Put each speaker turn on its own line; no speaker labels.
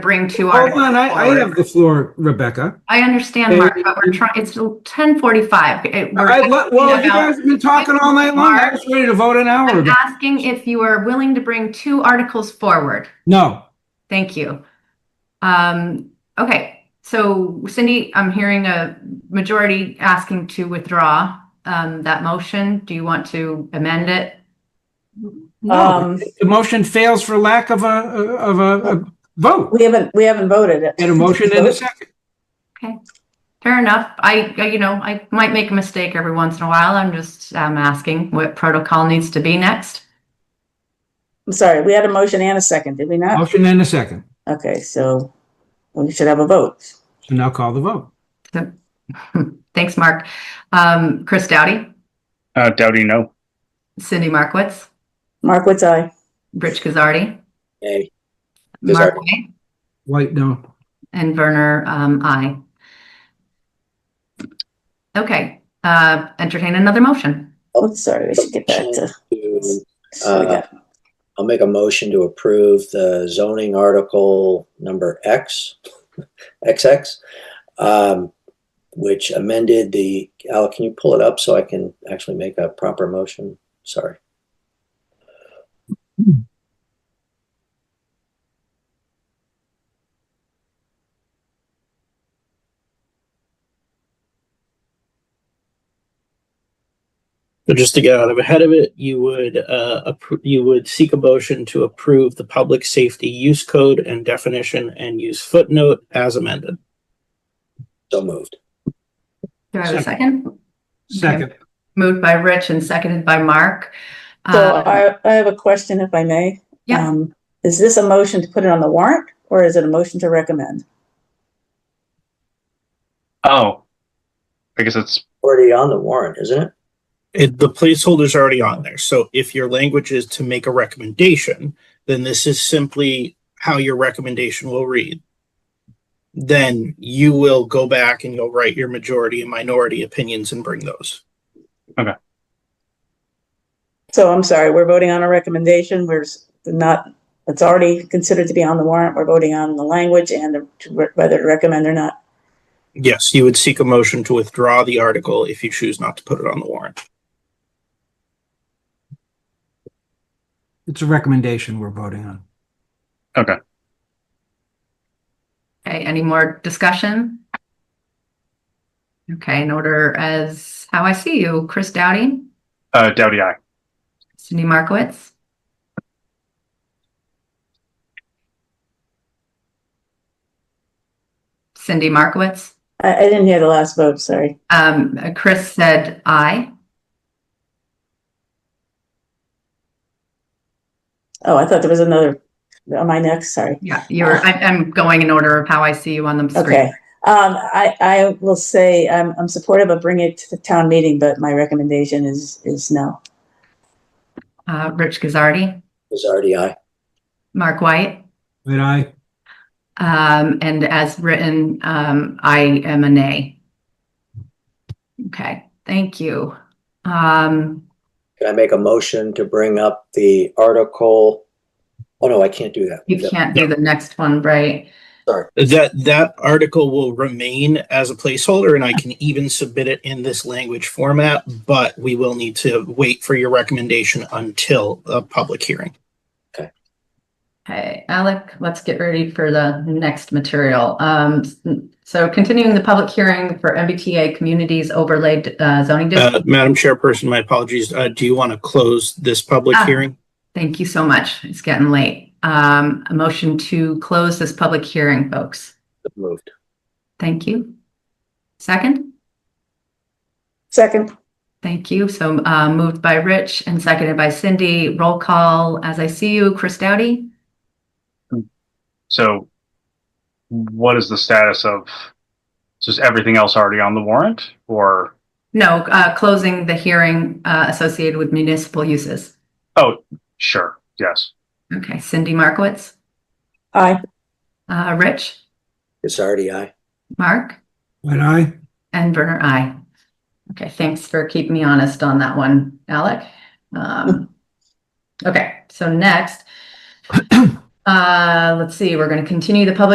bring two
Hold
articles
on, I, I have
forward.
the floor, Rebecca.
I understand, Mark, but we're trying, it's ten forty-five.
All right, well, you guys have been talking all night long. I was ready to vote an hour
I'm
ago.
asking if you are willing to bring two articles forward.
No,
Thank you. Um, okay, so Cindy, I'm hearing a majority asking to withdraw um, that motion. Do you want to amend it?
no,
Um,
the motion fails for lack of a, of a, a vote.
we haven't, we haven't voted it.
And a motion and a second.
Fair enough. I, I- you know, I might make a mistake every once in a while. I'm just um, asking what protocol needs to be next.
I'm sorry, we had a motion and a second, did we not?
Motion and a second.
Okay, so we should have a vote.
So now call the vote.
Thanks, Mark. Um, Chris Doughty,
Uh, Doughty, no.
Cindy Markowitz,
Mark, what's I?
Rich Kazardi,
Nay.
Mark
Gazzardi.
Way,
White, no.
and Werner, um, I. Okay, uh, entertain another motion.
Oh, sorry, we should get back to.
To,
so we got-
I'll make a motion to approve the zoning article number X, XX, um, which amended the, Al, can you pull it up so I can actually make a proper motion? Sorry.
So just to get out of ahead of it, you would uh, appro- you would seek a motion to approve the public safety use code and definition and use footnote as amended.
So moved.
Do I have a second?
Second.
Moved by Rich and seconded by Mark.
So
Um,
I, I have a question if I may.
Yeah.
Um, Is this a motion to put it on the warrant or is it a motion to recommend?
Oh, I guess it's
Already on the warrant, isn't it?
It, the placeholder's already on there. So if your language is to make a recommendation, then this is simply how your recommendation will read. Then you will go back and you'll write your majority and minority opinions and bring those.
So I'm sorry, we're voting on a recommendation. We're s- not, it's already considered to be on the warrant. We're voting on the language and to re- whether to recommend or not.
Yes, you would seek a motion to withdraw the article if you choose not to put it on the warrant.
It's a recommendation we're voting on.
Okay, any more discussion? Okay, in order as how I see you, Chris Dowdy,
uh, Doughty, I.
Cindy Markowitz, Cindy Markowitz.
I, I didn't hear the last vote, sorry.
Um, Chris said aye.
Oh, I thought there was another, am I next? Sorry.
Yeah, you're, I, I'm going in order of how I see you on the
Okay.
screen.
Um, I, I will say, I'm, I'm supportive of bringing it to the town meeting, but my recommendation is, is no.
Uh, Rich Gazardi,
Gazzardi, aye.
Mark White,
But I,
um, and as written, um, I am a nay. Okay, thank you. Um,
Can I make a motion to bring up the article? Oh, no, I can't do that.
You can't do the next one, right?
That that article will remain as a placeholder, and I can even submit it in this language format, but we will need to wait for your recommendation until a public hearing.
Okay, Alec, let's get ready for the next material. Um, so continuing the public hearing for MBTA Communities Overlaid uh, Zoning District.
Uh, Madam Chairperson, my apologies. Uh, do you want to close this public
Ah.
hearing?
Thank you so much. It's getting late. Um, a motion to close this public hearing, folks.
So Moved.
Thank you. Second,
Second,
thank you. So uh, moved by Rich and seconded by Cindy. Roll call, as I see you, Chris Doughty,
So, what is the status of? Is everything else already on the warrant, or
no, uh, closing the hearing uh, associated with municipal uses.
oh, sure, yes,
Okay, Cindy Markowitz,
aye.
uh, Rich,
Gazzardi, aye.
Mark,
but I,
and Werner, I. Okay, thanks for keeping me honest on that one, Alec. Um, okay, so next, uh, let's see, we're going to continue the public